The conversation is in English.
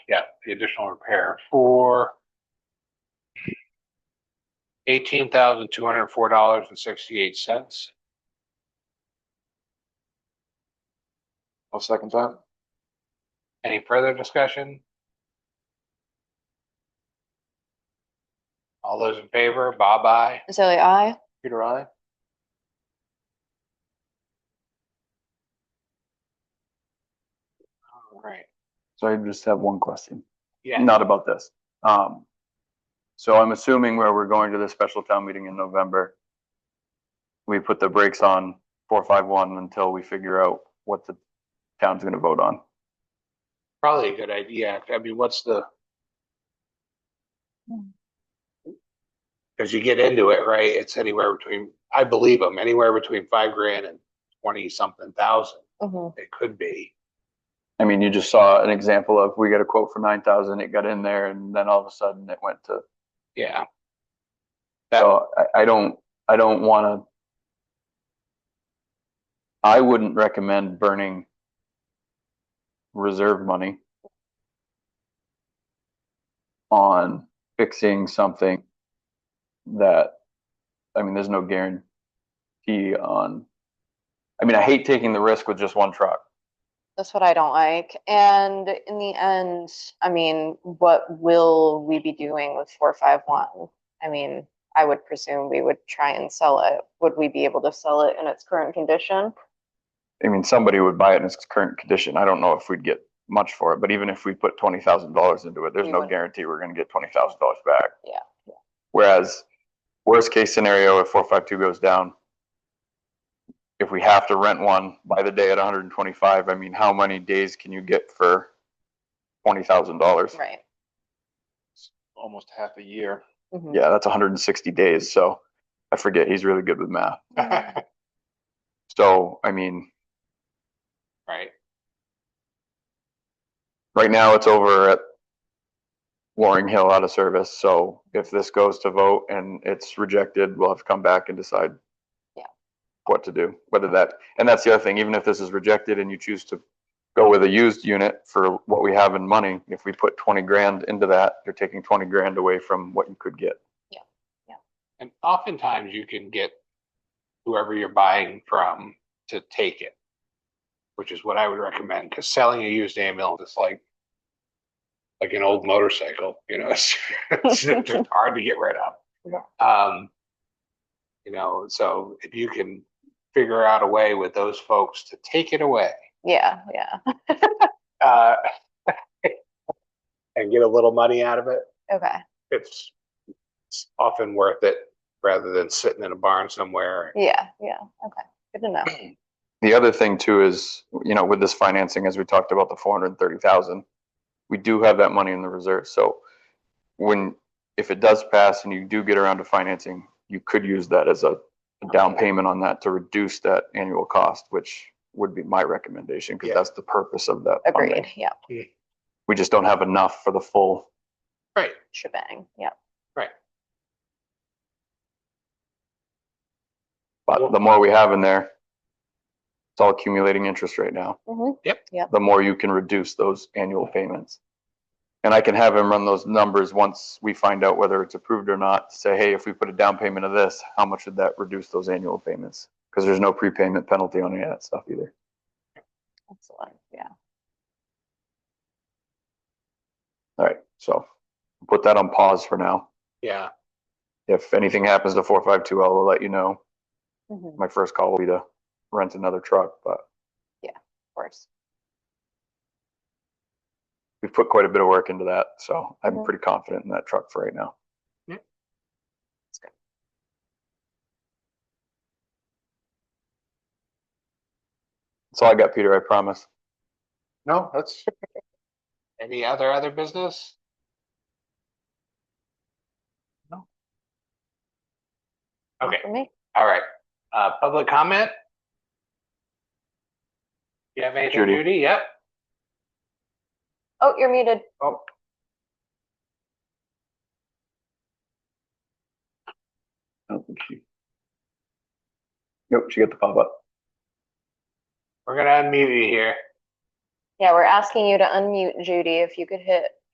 yeah, the additional repair for eighteen thousand two hundred and four dollars and sixty-eight cents. I'll second that. Any further discussion? All those in favor, Bob, aye. Azalea, I. Peter, I. All right. So I just have one question, Yeah, not about this. Um, so I'm assuming where we're going to this special town meeting in November, we put the brakes on four, five, one until we figure out what the town's gonna vote on. probably a good idea. I mean, what's the? Cause you get into it, right? It's anywhere between, I believe them, anywhere between five grand and twenty something thousand. Mhm. It could be. I mean, you just saw an example of, we got a quote for nine thousand, it got in there, and then all of a sudden it went to, Yeah. That, so I, I don't, I don't wanna. I wouldn't recommend burning reserve money on fixing something that, I mean, there's no guarantee on. I mean, I hate taking the risk with just one truck. That's what I don't like. And in the end, I mean, what will we be doing with four five one? I mean, I would presume we would try and sell it. Would we be able to sell it in its current condition? I mean, somebody would buy it in its current condition. I don't know if we'd get much for it, but even if we put twenty thousand dollars into it, there's We no wouldn't. guarantee we're gonna get twenty thousand dollars back. Yeah, Whereas, worst case scenario, if four five two goes down, if we have to rent one by the day at hundred and twenty-five, I mean, how many days can you get for twenty thousand dollars? Right. Almost half a year. Mhm. Yeah, that's hundred and sixty days, so I forget, he's really good with math. Mhm. So, I mean, right, right now it's over at Loring Hill out of service, so if this goes to vote and it's rejected, we'll have to come back and decide Yeah. what to do, whether that, and that's the other thing, even if this is rejected and you choose to go with a used unit for what we have in money, if we put twenty grand into that, you're taking twenty grand away from what you could get. and oftentimes you can get whoever you're buying from to take it. Which is what I would recommend, because selling a used ambulance is like. Like an old motorcycle, you know, it's, it's just hard to get rid of. Um. You know, so if you can figure out a way with those folks to take it away, Yeah, yeah. uh. And get a little money out of it, Okay. it's it's often worth it rather than sitting in a barn somewhere. Yeah, yeah. Okay. Good to know. The other thing too is, you know, with this financing, as we talked about the four hundred and thirty thousand, we do have that money in the reserve, so when, if it does pass and you do get around to financing, you could use that as a a down payment on that to reduce that annual cost, which would be my recommendation, Yeah. because that's the purpose of that funding. Agreed. Yeah. We just don't have enough for the full, Right. Shebang. Yeah. Well- but the more we have in there, it's all accumulating interest right now. Mhm. the more you can reduce those annual payments. And I can have him run those numbers once we find out whether it's approved or not, say, hey, if we put a down payment of this, how much would that reduce those annual payments? Because there's no prepayment penalty on any of that stuff either. Excellent. Yeah. All right, so put that on pause for now. Yeah. If anything happens to four five two L, we'll let you know. Mhm. Of My first call will be to rent another truck, but course. we've put quite a bit of work into that, so I'm Mhm. pretty confident in that truck for right now. Yeah. That's good. That's all I got, Peter, I promise. No, that's, Any other other business? No. Not Okay, For me. all right. Uh, public comment? You have anything, Judy. Judy? Yep. Oh, you're muted. Oh. I don't think she. Nope, she got the pop up. We're gonna unmute you here. Yeah, we're asking you to unmute Judy, if you could hit